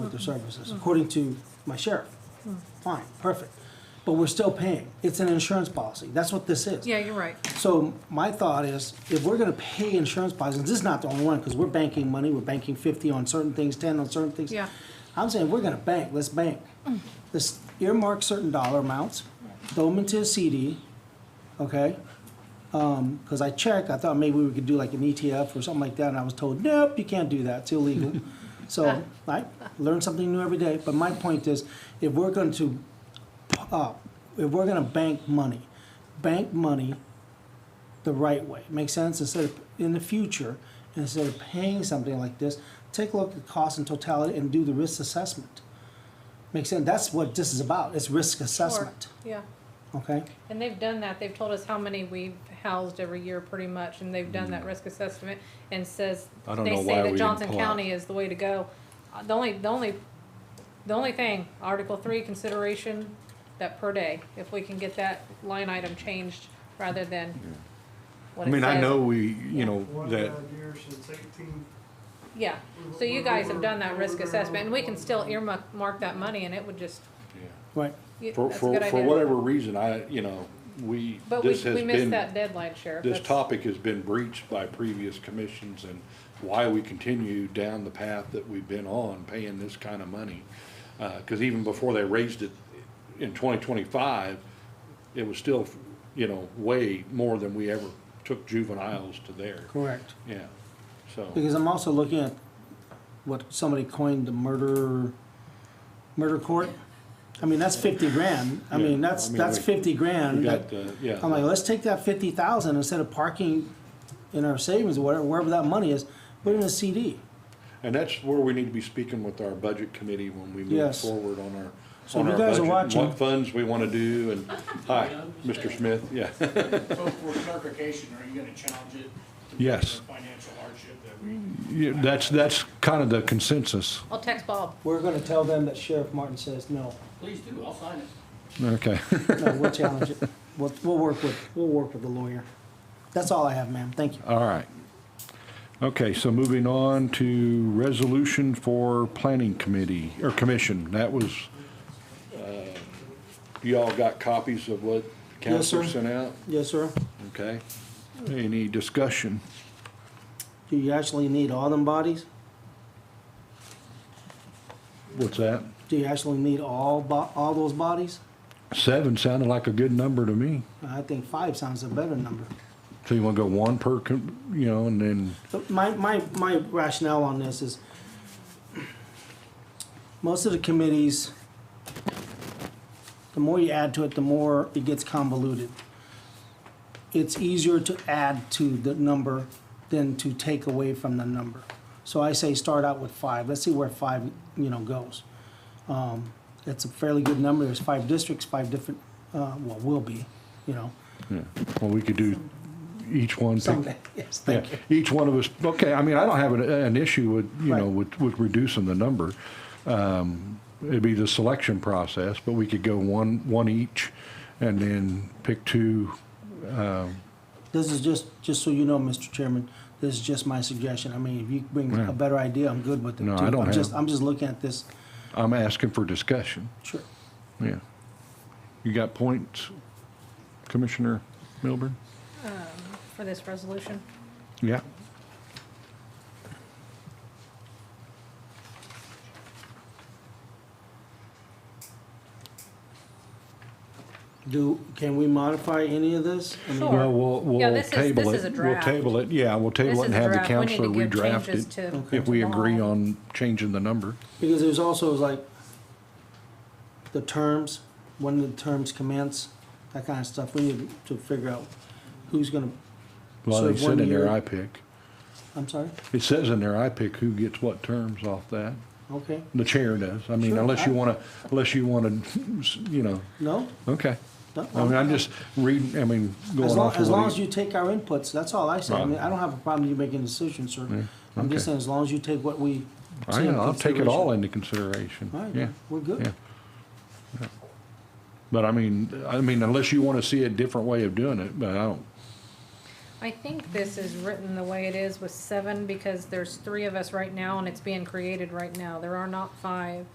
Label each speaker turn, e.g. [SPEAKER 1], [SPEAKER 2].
[SPEAKER 1] their
[SPEAKER 2] Mm-hmm.
[SPEAKER 1] services, according to my sheriff.
[SPEAKER 2] Mm.
[SPEAKER 1] Fine, perfect. But we're still paying. It's an insurance policy. That's what this is.
[SPEAKER 2] Yeah, you're right.
[SPEAKER 1] So my thought is, if we're gonna pay insurance policies, this is not the only one, because we're banking money, we're banking fifty on certain things, ten on certain things.
[SPEAKER 2] Yeah. Mm.
[SPEAKER 1] I'm saying, we're gonna bank, let's bank. Let's earmark certain dollar amounts, throw them into a CD, okay? Um, cause I checked, I thought maybe we could do like an ETF or something like that, and I was told, nope, you can't do that, it's illegal. So, I learn something new every day, but my point is, if we're going to, uh, if we're gonna bank money, bank money the right way. Make sense? Instead of in the future, instead of paying something like this, take a look at cost and totality and do the risk assessment. Make sense? That's what this is about. It's risk assessment.
[SPEAKER 2] Or- Yeah,
[SPEAKER 1] Okay?
[SPEAKER 2] and they've done that. They've told us how many we've housed every year pretty much, and they've done
[SPEAKER 3] Mm.
[SPEAKER 2] that risk assessment and says,
[SPEAKER 3] I don't
[SPEAKER 2] they
[SPEAKER 3] know why
[SPEAKER 2] say
[SPEAKER 3] we
[SPEAKER 2] that
[SPEAKER 3] didn't
[SPEAKER 2] Johnson
[SPEAKER 3] pull out.
[SPEAKER 2] County is the way to go. Uh, The only, the only, the only thing, Article three consideration, that per day, if we can get that line item changed rather than what
[SPEAKER 3] I
[SPEAKER 2] it
[SPEAKER 3] mean, I
[SPEAKER 2] says.
[SPEAKER 3] know we, you know,
[SPEAKER 4] One
[SPEAKER 3] that,
[SPEAKER 4] bad year since eighteen,
[SPEAKER 2] Yeah, so you guys have done that risk assessment, and we can still earmark, mark that money, and it would just,
[SPEAKER 1] Right.
[SPEAKER 2] you-
[SPEAKER 3] for,
[SPEAKER 2] that's a
[SPEAKER 3] for,
[SPEAKER 2] good
[SPEAKER 3] for
[SPEAKER 2] idea.
[SPEAKER 3] whatever reason, I, you know, we,
[SPEAKER 2] But we,
[SPEAKER 3] this has
[SPEAKER 2] we missed
[SPEAKER 3] been,
[SPEAKER 2] that deadline, Sheriff.
[SPEAKER 3] this
[SPEAKER 2] That's-
[SPEAKER 3] topic has been breached by previous commissions and why we continue down the path that we've been on, paying this kind of money. Uh 'cause cause even before they raised it in twenty twenty-five, it was still, you know, way more than we ever took juveniles to there.
[SPEAKER 1] Correct.
[SPEAKER 3] Yeah, so,
[SPEAKER 1] Because I'm also looking at what somebody coined the murder, murder court. I mean, that's fifty grand. I mean,
[SPEAKER 3] Yeah,
[SPEAKER 1] that's,
[SPEAKER 3] I mean,
[SPEAKER 1] that's
[SPEAKER 3] we-
[SPEAKER 1] fifty
[SPEAKER 3] we
[SPEAKER 1] grand. that-
[SPEAKER 3] got, uh, yeah.
[SPEAKER 1] I'm like, let's take that fifty thousand instead of parking in our savings or whatever, wherever that money is, put it in a CD.
[SPEAKER 3] And that's where we need to be speaking with our budget committee when we move
[SPEAKER 1] Yes.
[SPEAKER 3] forward on our,
[SPEAKER 1] So
[SPEAKER 3] on
[SPEAKER 1] you
[SPEAKER 3] our
[SPEAKER 1] guys are
[SPEAKER 3] budget, and
[SPEAKER 1] watching.
[SPEAKER 3] what funds we wanna do, and, hi, Mr. Smith, yeah.
[SPEAKER 5] So for clarification, are you gonna challenge it? to be
[SPEAKER 3] Yes.
[SPEAKER 5] the Financial hardship that we,
[SPEAKER 3] That's, that's kind of the consensus,
[SPEAKER 2] I'll text Bob.
[SPEAKER 1] We're gonna tell them that Sheriff Martin says, no,
[SPEAKER 5] please do, I'll sign it.
[SPEAKER 3] okay.
[SPEAKER 1] no, we'll challenge it. We'll, we'll work with, we'll work with the lawyer. That's all I have, ma'am. Thank you.
[SPEAKER 3] All right. Okay, so moving on to resolution for planning committee, or commission, that was, uh, you all got copies of what
[SPEAKER 1] Yes, sir.
[SPEAKER 3] council sent out?
[SPEAKER 1] Yes, sir.
[SPEAKER 3] Okay. Any discussion?
[SPEAKER 1] Do you actually need all them bodies?
[SPEAKER 3] What's that?
[SPEAKER 1] Do you actually need all bo- all those bodies?
[SPEAKER 3] Seven sounded like a good number to me.
[SPEAKER 1] I think five sounds a better number.
[SPEAKER 3] So you want to go one per, com- you know, and then,
[SPEAKER 1] So My, my, my rationale on this is, most of the committees, the more you add to it, the more it gets convoluted. It's easier to add to the number than to take away from the number. So I say start out with five, let's see where five, you know, goes. Um, It's a fairly good number, there's five districts, five different, uh, well, will be, you know,
[SPEAKER 3] yeah, well, we could do each one. pick-
[SPEAKER 1] someday, yes, thank you.
[SPEAKER 3] Yeah, Each one of us, okay, I mean, I don't have an, an issue with, you know,
[SPEAKER 1] Right.
[SPEAKER 3] with, with reducing the number. Um, It'd be the selection process, but we could go one, one each and then pick two.
[SPEAKER 1] This is just, just so you know, Mr. Chairman, this is just my suggestion. I mean, if you bring
[SPEAKER 3] Yeah.
[SPEAKER 1] a better idea, I'm good with it.
[SPEAKER 3] No,
[SPEAKER 1] too.
[SPEAKER 3] I don't
[SPEAKER 1] I'm just,
[SPEAKER 3] have-
[SPEAKER 1] I'm just looking at this.
[SPEAKER 3] I'm asking for discussion,
[SPEAKER 1] Sure.
[SPEAKER 3] yeah. You got points, Commissioner Milburn?
[SPEAKER 2] for this resolution.
[SPEAKER 3] Yeah.
[SPEAKER 1] Do, can we modify any of this? I mean,
[SPEAKER 2] Sure.
[SPEAKER 3] Well, Uh, we'll,
[SPEAKER 2] Yeah,
[SPEAKER 3] we'll
[SPEAKER 2] this is-
[SPEAKER 3] table
[SPEAKER 2] this is a
[SPEAKER 3] it, we'll
[SPEAKER 2] draft.
[SPEAKER 3] table it, yeah, we'll
[SPEAKER 2] This
[SPEAKER 3] table it
[SPEAKER 2] is
[SPEAKER 3] and
[SPEAKER 2] a
[SPEAKER 3] have the
[SPEAKER 2] draft. We need
[SPEAKER 3] counselor
[SPEAKER 2] to give
[SPEAKER 3] redraft
[SPEAKER 2] changes
[SPEAKER 3] it.
[SPEAKER 2] to-
[SPEAKER 3] If we
[SPEAKER 2] to the
[SPEAKER 3] agree
[SPEAKER 2] law.
[SPEAKER 3] on changing the number,
[SPEAKER 1] Because there's also like the terms, when the terms commence, that kind of stuff. We need to figure out who's gonna,
[SPEAKER 3] well,
[SPEAKER 1] So
[SPEAKER 3] they
[SPEAKER 1] if
[SPEAKER 3] said
[SPEAKER 1] one
[SPEAKER 3] in there,
[SPEAKER 1] year-
[SPEAKER 3] I pick.
[SPEAKER 1] I'm sorry,
[SPEAKER 3] It says in there, I pick who gets what terms off that,
[SPEAKER 1] okay,
[SPEAKER 3] the chair does, I mean,
[SPEAKER 1] Sure,
[SPEAKER 3] unless you
[SPEAKER 1] I-
[SPEAKER 3] wanna, unless you wanna, you know,
[SPEAKER 1] no?
[SPEAKER 3] okay.
[SPEAKER 1] No,
[SPEAKER 3] I mean, I'm just reading, I mean,
[SPEAKER 1] As
[SPEAKER 3] going
[SPEAKER 1] long,
[SPEAKER 3] off
[SPEAKER 1] as
[SPEAKER 3] of
[SPEAKER 1] long as
[SPEAKER 3] what he.
[SPEAKER 1] you take our inputs, that's all I say. I
[SPEAKER 3] Right.
[SPEAKER 1] mean, I don't have a problem you making decisions, sir. I'm just
[SPEAKER 3] okay.
[SPEAKER 1] saying, as long as you take what we.
[SPEAKER 3] I
[SPEAKER 1] say in
[SPEAKER 3] know, I'll take it all
[SPEAKER 1] consideration.
[SPEAKER 3] into consideration,
[SPEAKER 1] All right,
[SPEAKER 3] yeah,
[SPEAKER 1] then, we're
[SPEAKER 3] yeah.
[SPEAKER 1] good.
[SPEAKER 3] Yeah. But I mean, I mean, unless you wanna see a different way of doing it, but I don't,
[SPEAKER 2] I think this is written the way it is with seven, because there's three of us right now, and it's being created right now, there are not five.